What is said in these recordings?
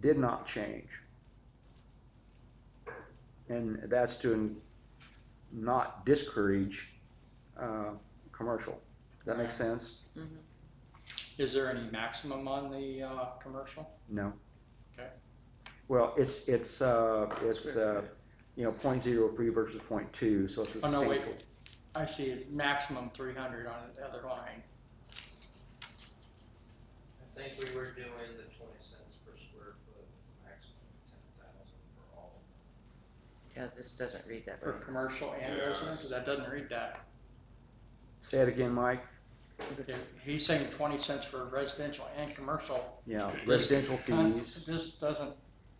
did not change. And that's to not discourage, uh, commercial. That makes sense? Is there any maximum on the uh, commercial? No. Okay. Well, it's, it's, uh, it's, Square uh, you know, point zero three versus point two, so it's a Oh, no, wait. substantial- I see it's maximum three hundred on the other line. I think we were doing the twenty cents per square foot, maximum ten thousand for all. Yeah, this doesn't read that For right. commercial and Yeah. residential, 'Cause that doesn't read that. Say it again, Mike. If He's saying twenty cents for residential and commercial. Yeah, residential con- fees. This doesn't,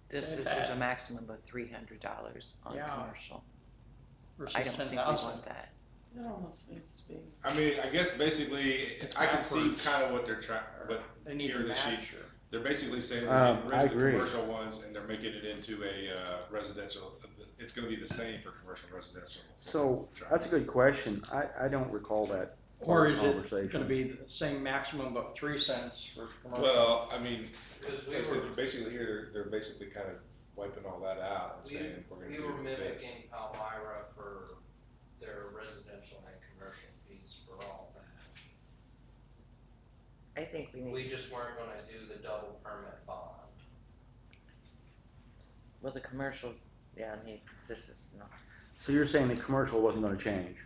This Say is, that. there's a maximum of three hundred dollars on Yeah. commercial. I versus don't ten think we thousand. want that. It almost needs to be. I mean, I guess basically, It's I can see backwards. kind of what they're trying, but They need here to the sheet- match. or- they're basically Um, saying they're getting rid I of the agree. commercial ones and they're making it into a uh, residential. It's going to be the same for commercial and residential. So that's a good question. I, I don't recall that. Or is it Conversation. gonna be the same maximum but three cents for commercial? Well, I mean, Cause we like I said, were, basically here they're, they're basically kind of wiping all that out and saying we're going we, to we do were this. mimicking Palmyra for their residential and commercial fees for all that. I think we need, We just weren't gonna do the double permit bond. well, the commercial, yeah, needs, this is not, So you're saying the commercial wasn't gonna change?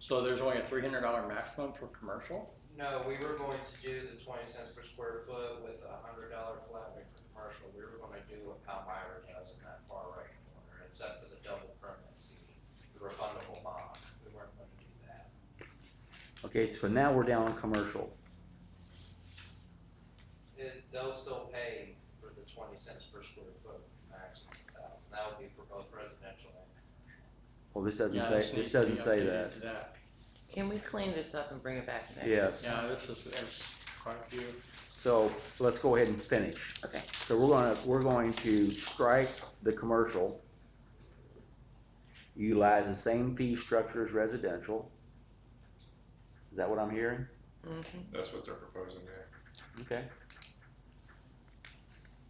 So there's only a three hundred dollar maximum for commercial? No, we were going to do the twenty cents per square foot with a hundred dollar flat rate for commercial, we were gonna do what Palmyra does in that far right corner, except for the double permit fee, the refundable bond, we weren't gonna do that. Okay, so now we're down on commercial. It, they'll still pay for the twenty cents per square foot maximum thousand, that would be for both residential and. Well, this doesn't Yeah, say, this needs to be doesn't say that. updated to that. can we clean this up and bring it back next? Yes, Yeah, this is, there's quite a few. so let's go ahead and finish. Okay. So we're gonna, we're going to strike the commercial. Utilize the same fee structure as residential. Is that what I'm hearing? Mhm. That's what they're proposing there. Okay.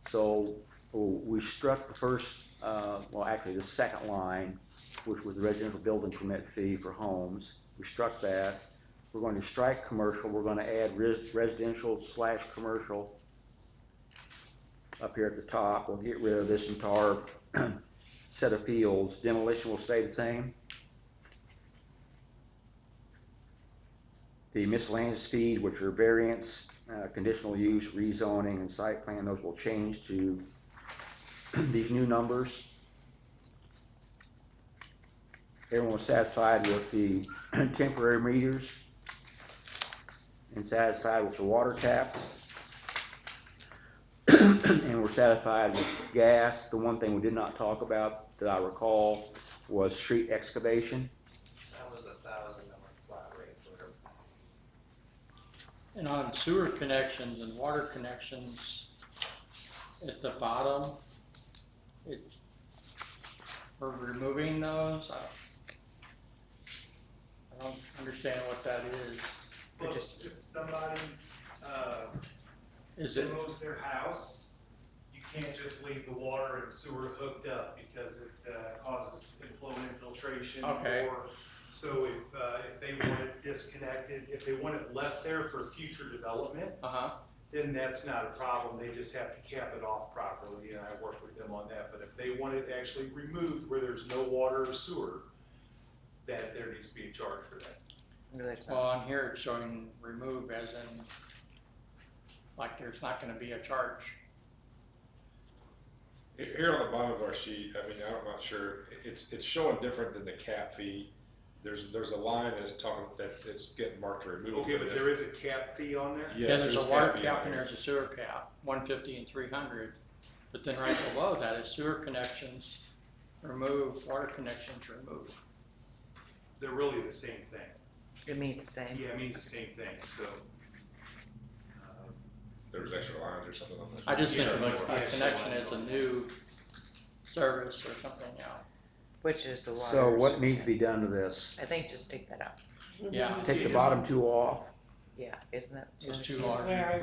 So, w- we struck the first, uh, well, actually, the second line, which was the residential building permit fee for homes. We struck that. We're going to strike commercial, we're gonna add res- residential slash commercial up here at the top. We'll get rid of this entire set of fields. Demolition will stay the same. The miscellaneous fees, which are variance, uh, conditional use, rezoning, and site plan, those will change to these new numbers. Everyone was satisfied with the temporary meters and satisfied with the water taps. And we're satisfied with gas. The one thing we did not talk about that I recall was street excavation. That was a thousand dollar flat rate for, And on sewer connections and water connections, at the bottom, it, we're removing those, I I don't understand what that is. Well, if somebody, uh, Is it, removes their house, you can't just leave the water and sewer hooked up because it uh, causes inflow and infiltration. Okay. or- So if, uh, if they want it disconnected, if they want it left there for future development, uh-huh, then that's not a problem. They just have to cap it off properly, and I work with them on that. But if they want it actually removed where there's no water or sewer, that there needs to be a charge for that. Maybe that's not- well, on here it's showing remove as in, like there's not gonna be a charge. Here- Here on the bottom of our sheet, I mean, I'm not sure, it's, it's showing different than the cap fee. There's, there's a line that's talking, that it's getting marked to remove. Okay, but there is a cap fee on there? Yeah, Yes, there's a water fee on cap and there. there's a sewer cap, one fifty and three hundred, but then right below that is sewer connections, remove, water connections, remove. They're really the same thing. It means the same. Yeah, it means the same thing, so. um, There was extra lines or something on that. I just think Yeah, of like- a yeah, connection sure. as a new service or something, yeah. Which is the water. So what needs to be done to this? I think just take that out. Yeah. Take the bottom two off. Yeah, isn't that? It's too much? large. Where I